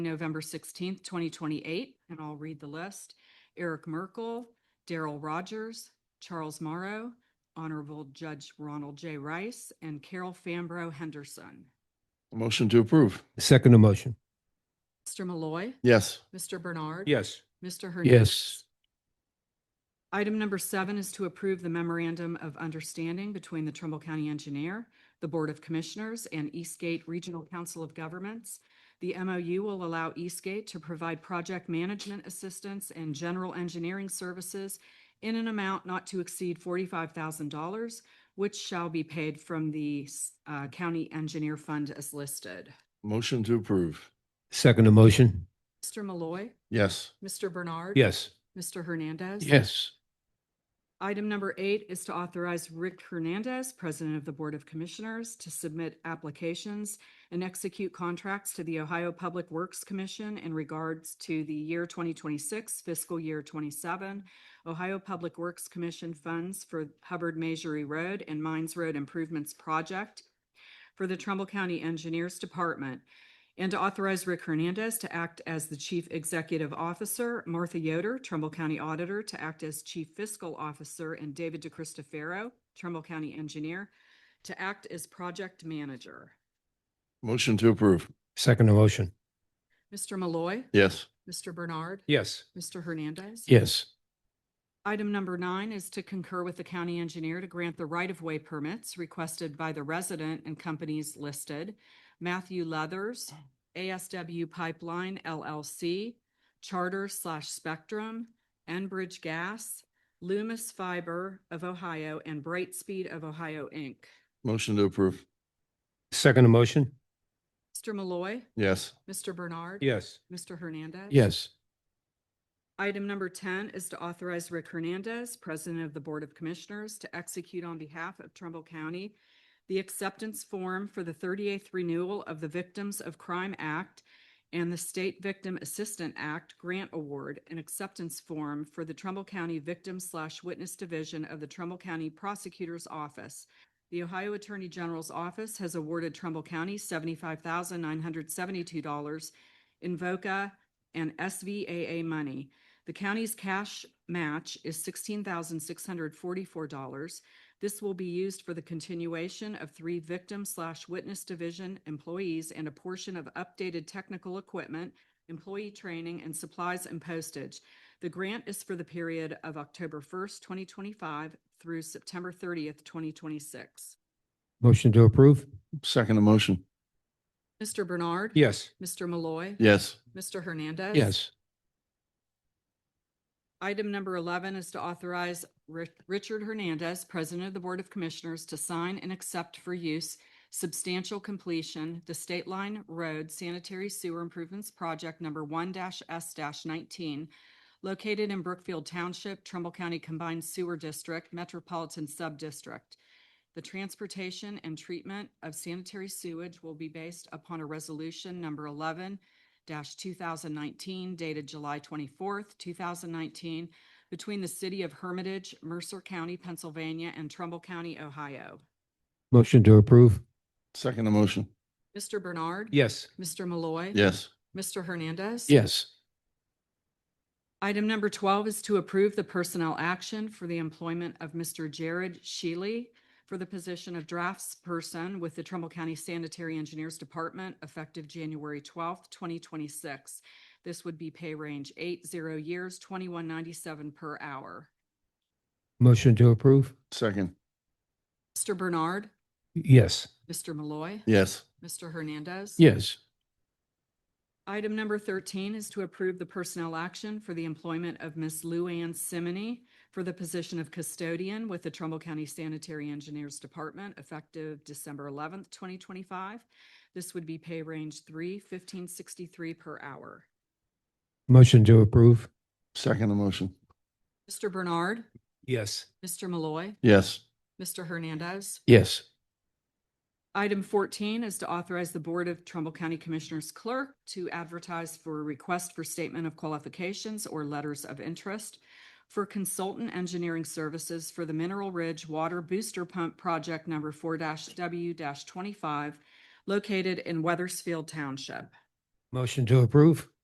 November sixteenth, twenty twenty-eight, and I'll read the list. Eric Merkel, Daryl Rogers, Charles Morrow, Honorable Judge Ronald J. Rice, and Carol Fambro Henderson. Motion to approve. Second emotion. Mr. Malloy, Yes. Mr. Bernard. Yes. Mr. Hernandez. Item number seven is to approve the memorandum of understanding between the Trumbull County Engineer, the Board of Commissioners, and Eastgate Regional Council of Governments. The MOU will allow Eastgate to provide project management assistance and general engineering services in an amount not to exceed forty-five thousand dollars, which shall be paid from the uh, County Engineer Fund as listed. Motion to approve. Second emotion. Mr. Malloy, Yes. Mr. Bernard. Yes. Mr. Hernandez. Yes. Item number eight is to authorize Rick Hernandez, President of the Board of Commissioners, to submit applications and execute contracts to the Ohio Public Works Commission in regards to the year 2026 fiscal year 27 Ohio Public Works Commission funds for Hubbard Majory Road and Mines Road Improvements Project for the Trumbull County Engineers Department and to authorize Rick Hernandez to act as the Chief Executive Officer, Martha Yoder, Trumbull County Auditor, to act as Chief Fiscal Officer, and David DeCristofaro, Trumbull County Engineer, to act as Project Manager. Motion to approve. Second emotion. Mr. Malloy, Yes. Mr. Bernard, Yes. Mr. Hernandez. Yes. Item number nine is to concur with the county engineer to grant the right-of-way permits requested by the resident and companies listed. Matthew Leathers, ASW Pipeline LLC, Charter slash Spectrum, Enbridge Gas, Loomis Fiber of Ohio, and Brightspeed of Ohio, Inc. Motion to approve. Second emotion. Mr. Malloy, Yes. Mr. Bernard. Yes. Mr. Hernandez. Yes. Item number ten is to authorize Rick Hernandez, President of the Board of Commissioners, to execute on behalf of Trumbull County the acceptance form for the thirty-eighth renewal of the Victims of Crime Act and the State Victim Assistant Act Grant Award, an acceptance form for the Trumbull County Victim slash Witness Division of the Trumbull County Prosecutor's Office. The Ohio Attorney General's Office has awarded Trumbull County seventy-five thousand nine hundred seventy-two dollars in VOCA and SVAA money. The county's cash match is sixteen thousand six hundred forty-four dollars. This will be used for the continuation of three victim slash witness division employees and a portion of updated technical equipment, employee training, and supplies and postage. The grant is for the period of October first, twenty twenty-five through September thirtieth, twenty twenty-six. Motion to approve. Second emotion. Mr. Bernard. Yes. Mr. Malloy. Yes. Mr. Hernandez. Yes. Item number 11 is to authorize Ri- Richard Hernandez, President of the Board of Commissioners, to sign and accept for use substantial completion, the State Line Road Sanitary Sewer Improvements Project Number 1-S-19, located in Brookfield Township, Trumbull County Combined Sewer District, Metropolitan Subdistrict. The transportation and treatment of sanitary sewage will be based upon a resolution number 11 two thousand nineteen dated July twenty-fourth, two thousand nineteen between the city of Hermitage, Mercer County, Pennsylvania and Trumbull County, Ohio. Motion to approve. Second emotion. Mr. Bernard. Yes. Mr. Malloy. Yes. Mr. Hernandez. Yes. Item number twelve is to approve the personnel action for the employment of Mr. Jared Shealy for the position of draftsperson with the Trumbull County Sanitary Engineers Department effective January twelfth, twenty twenty-six. This would be pay range eight zero years, twenty-one ninety-seven per hour. Motion to approve. Second. Mr. Bernard, Yes. Mr. Malloy, Yes. Mr. Hernandez. Yes. Item number thirteen is to approve the personnel action for the employment of Ms. Lou Ann Simony for the position of custodian with the Trumbull County Sanitary Engineers Department effective December eleventh, twenty twenty-five. This would be pay range three fifteen sixty-three per hour. Motion to approve. Second emotion. Mr. Bernard, Yes. Mr. Malloy, Yes. Mr. Hernandez. Yes. Item fourteen is to authorize the Board of Trumbull County Commissioners Clerk to advertise for a request for statement of qualifications or letters of interest for consultant engineering services for the Mineral Ridge Water Booster Pump Project Number four W twenty-five located in Weathersfield Township. Motion to approve?